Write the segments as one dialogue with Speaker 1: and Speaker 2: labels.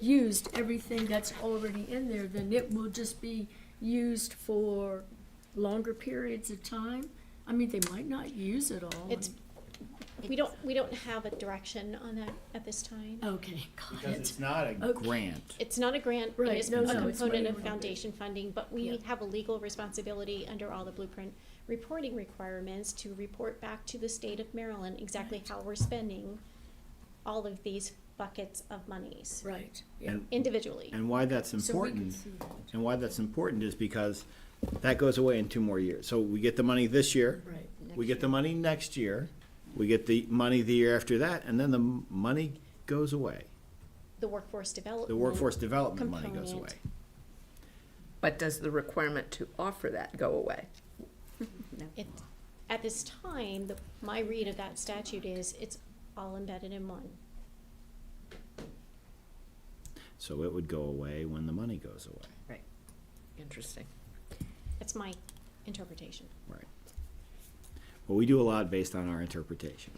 Speaker 1: used everything that's already in there, then it will just be used for longer periods of time. I mean, they might not use it all.
Speaker 2: It's- We don't, we don't have a direction on that at this time.
Speaker 1: Okay, got
Speaker 3: Because
Speaker 1: it. Oh,
Speaker 3: it's not a
Speaker 1: Okay.
Speaker 4: grant.
Speaker 2: It's not a grant, it
Speaker 1: Right,
Speaker 2: is
Speaker 1: no,
Speaker 2: a
Speaker 1: no, it's
Speaker 2: component
Speaker 1: money
Speaker 2: of
Speaker 1: we're-
Speaker 2: foundation funding, but
Speaker 1: Yeah.
Speaker 2: we have a legal responsibility under all the blueprint reporting requirements to report back to the state of Maryland exactly how we're spending all of these buckets of monies
Speaker 1: Right, yeah.
Speaker 4: And,
Speaker 2: individually.
Speaker 4: and why that's
Speaker 1: So we can
Speaker 4: important,
Speaker 1: see that.
Speaker 4: and why that's important is because that goes away in two more years. So we get the money this year,
Speaker 1: Right.
Speaker 4: we get the money next year, we get the money the year after that, and then the m- money goes away.
Speaker 2: The workforce development.
Speaker 4: The workforce development money goes away.
Speaker 2: component.
Speaker 5: But does the requirement to offer that go away?
Speaker 2: It, at this time, the, my read of that statute is it's all embedded in one.
Speaker 4: So it would go away when the money goes away.
Speaker 5: Interesting.
Speaker 2: That's my interpretation.
Speaker 4: Right. Well, we do a lot based on our interpretation.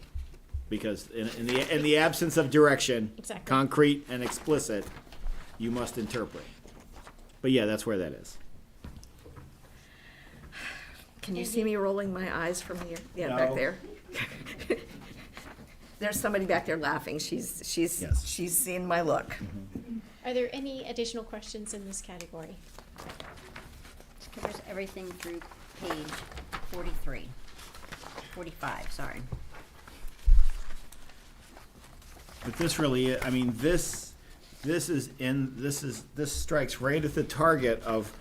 Speaker 4: Because in, in the, in the absence of direction,
Speaker 2: Exactly.
Speaker 4: concrete and explicit, you must interpret. But yeah, that's where that is.
Speaker 5: Can you see me rolling my eyes from here? Yeah, back
Speaker 4: No.
Speaker 5: there. There's somebody back there laughing. She's, she's,
Speaker 4: Yes.
Speaker 5: she's seen my look.
Speaker 2: Are there any additional questions in this category?
Speaker 6: Covers everything through page forty-three, forty-five, sorry.
Speaker 4: But this really, I mean, this, this is in, this is, this strikes right at the target of,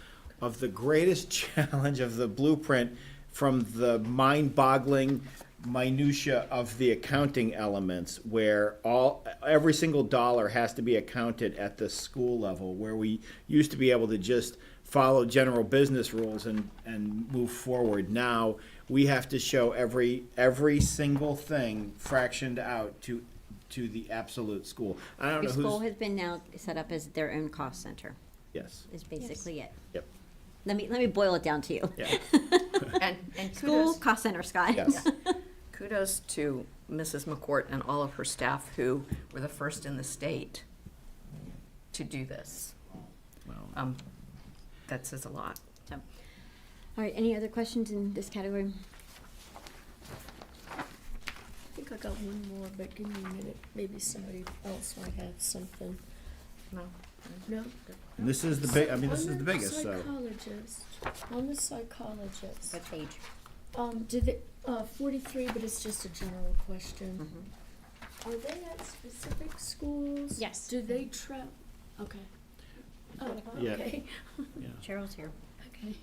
Speaker 4: of the greatest challenge of the blueprint from the mind-boggling minutia of the accounting elements where all, every single dollar has to be accounted at the school level, where we used to be able to just follow general business rules and, and move forward. Now, we have to show every, every single thing fractioned out to to the absolute school. I don't
Speaker 6: Every
Speaker 4: know
Speaker 6: school
Speaker 4: who's,
Speaker 6: has been now set up as their own cost center,
Speaker 4: yes,
Speaker 6: is basically it.
Speaker 4: yep,
Speaker 6: Let me, let me boil it down to you.
Speaker 4: yeah,
Speaker 5: And, and
Speaker 6: School,
Speaker 5: kudos,
Speaker 6: cost center, Scott.
Speaker 4: yes.
Speaker 5: kudos to Mrs. McCourt and all of her staff who were the first in the state to do this.
Speaker 4: Well,
Speaker 5: Um, That says a lot.
Speaker 6: So, All right, any other questions in this category?
Speaker 1: I think I got one more, but give me a minute. Maybe somebody else might have something.
Speaker 5: No.
Speaker 1: No?
Speaker 4: and This is the big, I mean, this
Speaker 1: On
Speaker 4: is the biggest, so.
Speaker 1: Psychologist, on the psychologist,
Speaker 6: What page?
Speaker 1: um, do they, uh, forty-three, but it's just a general question.
Speaker 7: Mm-hmm.
Speaker 1: Are they at specific schools?
Speaker 2: Yes.
Speaker 1: Do they travel? okay. Oh,
Speaker 4: Yeah.
Speaker 1: okay,
Speaker 6: Cheryl's here.
Speaker 1: okay.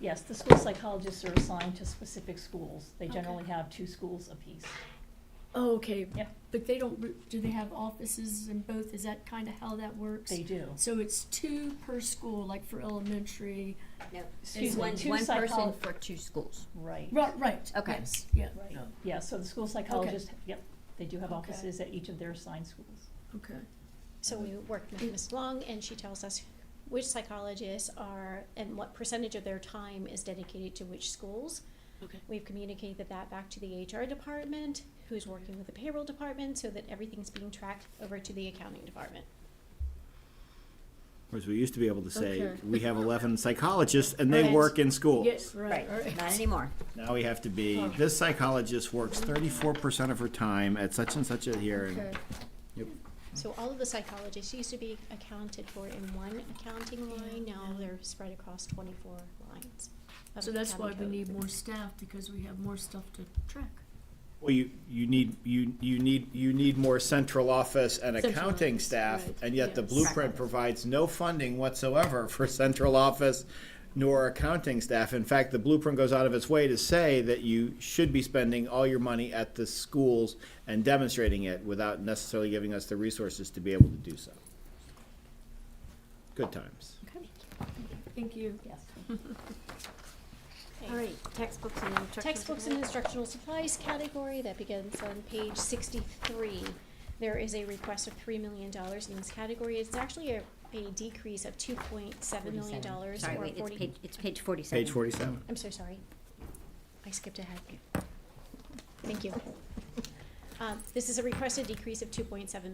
Speaker 7: Yes, the school psychologists are assigned to specific schools. They
Speaker 1: Okay.
Speaker 7: generally have two schools apiece.
Speaker 1: Oh, okay.
Speaker 7: Yeah.
Speaker 1: But they don't, re- do they have offices in both? Is that kinda how that works?
Speaker 7: They do.
Speaker 1: So it's two per school, like for elementary?
Speaker 6: No,
Speaker 7: Excuse me,
Speaker 6: one,
Speaker 7: two
Speaker 6: one person
Speaker 7: psychol-
Speaker 6: for two schools.
Speaker 7: Right.
Speaker 1: Right, right.
Speaker 6: Okay.
Speaker 1: Yes, yeah,
Speaker 7: Right, yeah, so the school psychologists, yep, they do have
Speaker 1: Okay.
Speaker 7: offices at each of their assigned schools.
Speaker 1: okay.
Speaker 2: So we work with Ms. Long, and she tells us which psychologists are, and what percentage of their time is dedicated to which schools.
Speaker 1: Okay.
Speaker 2: We've communicated that back to the HR department, who's working with the payroll department, so that everything's being tracked over to the accounting department.
Speaker 4: Whereas we used to be able to say,
Speaker 1: Okay.
Speaker 4: we have eleven psychologists and they
Speaker 1: Right.
Speaker 4: work in
Speaker 1: Yes, Oh.
Speaker 4: schools.
Speaker 1: right, right.
Speaker 6: Not anymore.
Speaker 4: Now we have to be, this psychologist works thirty-four percent of her time at such and such a year. and-
Speaker 1: Okay.
Speaker 4: Yep.
Speaker 2: So all of the psychologists used to be accounted for in one accounting line, now they're spread across twenty-four lines. of
Speaker 1: So that's why
Speaker 2: accounting
Speaker 1: we
Speaker 2: code.
Speaker 1: need more staff, because we have more stuff to track.
Speaker 4: Well, you, you need, you, you need, you need more central office and
Speaker 1: Central
Speaker 4: accounting
Speaker 1: office,
Speaker 4: staff,
Speaker 1: right,
Speaker 4: and yet the
Speaker 1: yes.
Speaker 4: blueprint provides no funding whatsoever for central office nor accounting staff. In fact, the blueprint goes out of its way to say that you should be spending all your money at the schools and demonstrating it without necessarily giving us the resources to be able to do so. Good times.
Speaker 1: Thank you.
Speaker 7: Yes.
Speaker 2: Okay.
Speaker 6: All right, textbooks and instructional.
Speaker 2: Textbooks and instructional supplies category, that begins on page sixty-three. There is a request of three million dollars in this category. It's actually a, a decrease of two point seven million dollars or
Speaker 6: Sorry, wait,
Speaker 2: forty.
Speaker 6: it's page, it's page forty-seven.
Speaker 4: Page forty-seven.
Speaker 2: I'm so sorry. I skipped ahead. Thank you. Um, this is a requested decrease of two point seven